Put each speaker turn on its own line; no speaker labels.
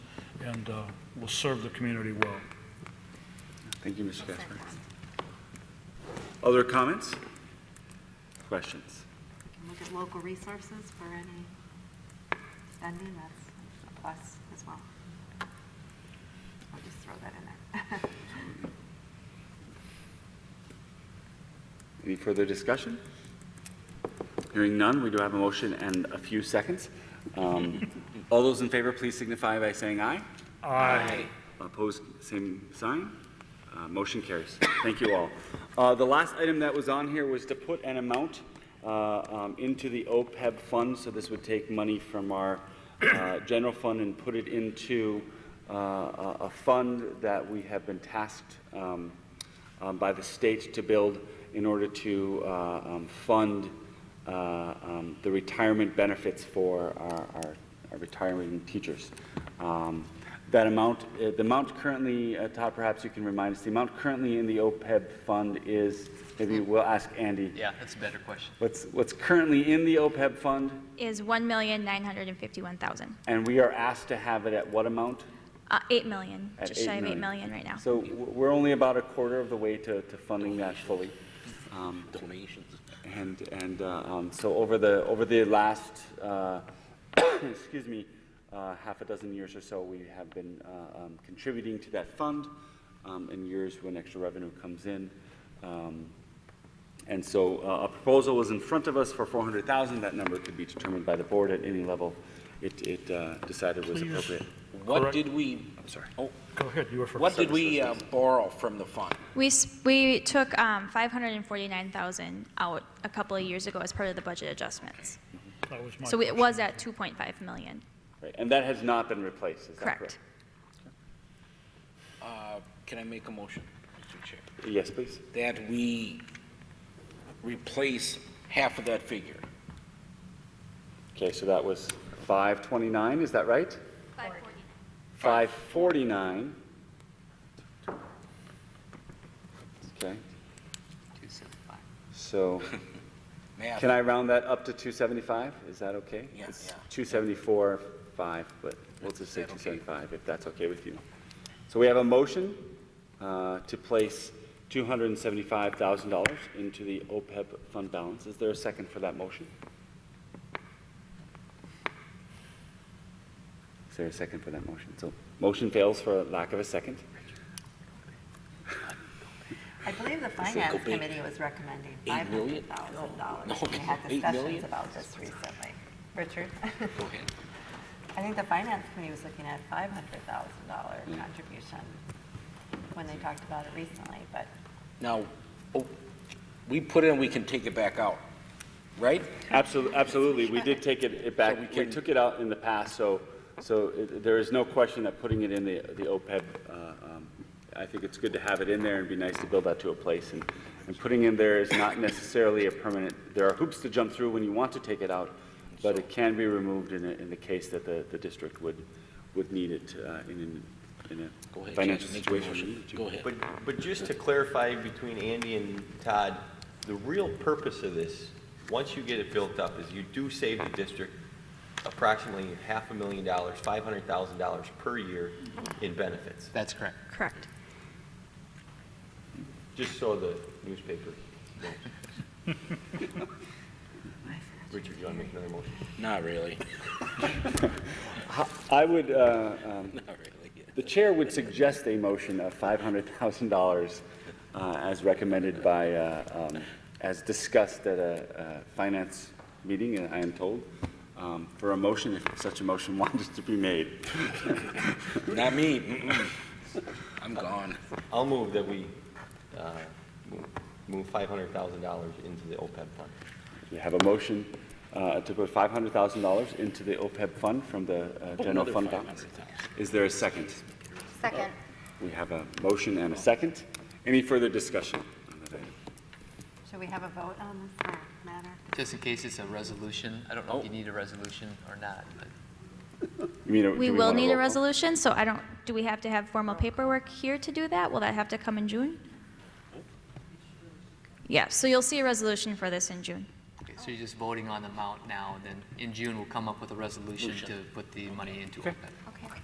and uh, will serve the community well.
Thank you, Mr. Gasper. Other comments? Questions?
Look at local resources for any spending, that's a plus as well. I'll just throw that in there.
Any further discussion? Hearing none, we do have a motion and a few seconds. Um, All those in favor, please signify by saying aye.
Aye.
Opposed, same sign. Uh, Motion carries. Thank you all. Uh, The last item that was on here was to put an amount uh, um, into the OPEB fund, so this would take money from our uh, general fund and put it into uh, a a fund that we have been tasked um, um, by the state to build in order to uh, um, fund uh, um, the retirement benefits for our- our our retiring teachers. Um, That amount, uh, the amount currently, uh, Todd, perhaps you can remind us, the amount currently in the OPEB fund is, maybe we'll ask Andy,
Yeah, that's a better question.
what's what's currently in the OPEB fund,
is one million nine hundred and fifty-one thousand.
and we are asked to have it at what amount?
Uh, eight million,
At
just shy of eight million right now.
So w- we're only about a quarter of the way to to funding that fully. Um,
Donations.
And, and uh, um, so over the, over the last, uh, excuse me, uh, half a dozen years or so, we have been uh, um, contributing to that fund um, in years when extra revenue comes in. Um, And so uh, a proposal was in front of us for 400,000. That number could be determined by the board at any level. It, it uh, decided was
Please.
appropriate.
Correct.
What did we,
I'm sorry.
oh,
Go ahead, you were first.
what did we uh, borrow from the fund?
We, s- we took, um, five hundred and forty-nine thousand out a couple of years ago as part of the budget adjustments.
That was my
So it
question.
was at two point five million,
Right, And that has not been replaced, is that correct?
correct?
Uh, Can I make a motion, Mr. Chair?
Yes, please.
That we replace half of that figure.
Okay, so that was 529, is that right?
Five
549.
forty-nine.
Okay,
Two seventy-five.
so
Math.
can I round that up to 275? Is that okay?
Yeah,
It's
yeah.
274, 5, but we'll just say
Is that okay?
275, if that's okay with you. So we have a motion uh, to place $275,000 into the OPEB fund balance. Is there a second for that motion? Is there a second for that motion? So motion fails for lack of a second.
I believe the
should go
finance
big.
committee was recommending
Eight
five
million?
hundred thousand dollars.
No,
We had
eight
discussions
million?
about this recently. Richard?
Go ahead.
I think the finance committee was looking at five hundred thousand dollar
Mm.
contribution when they talked about it recently, but
Now, oh, we put in, we can take it back out, right?
Absolutely, absolutely. We did take it, it back.
So we
We
can-
took it out in the past, so, so it- there is no question that putting it in the, the OPEB, uh, um, I think it's good to have it in there and be nice to build that to a place. And, and putting in there is not necessarily a permanent, there are hoops to jump through when you want to take it out, but it can be removed in, the- in the case that the, the district would, would need it uh, in, an- in
Go
a
ahead,
financial
Jason, make your
situation.
motion. Go ahead.
But, but just to clarify between Andy and Todd, the real purpose of this, once you get it built up, is you do save the district approximately half a million dollars, five hundred thousand dollars per year in benefits,
That's correct.
Correct.
just so the newspaper knows. Richard, you want to make another motion?
Not really,
I would, uh, um,
not really. yeah.
The chair would suggest a motion of $500,000 uh, as recommended by, uh, um, as discussed at a a finance meeting, uh, I am told, um, for a motion, if such a motion wanted to be made.
Not me, mm-mm. I'm gone.
I'll move that we, uh, move- move five hundred thousand dollars into the OPEB fund.
We have a motion uh, to put $500,000 into the OPEB fund from the uh, general
Oh, Another
fund balance.
500,000.
Is there a second?
Second.
We have a motion and a second. Any further discussion on that item?
should we have a vote on this or matter?
Just in case it's a resolution, Oh. I don't know if you need a resolution or not, but
You mean, uh, do
We will
want
need a
roll call?
resolution, so I don't, do we have to have formal paperwork here to do that? Will that have to come in June? Yeah, so you'll see a resolution for this in June.
okay, so you're just voting on the amount now, and then in June, we'll come up with a resolution to put the money into E it.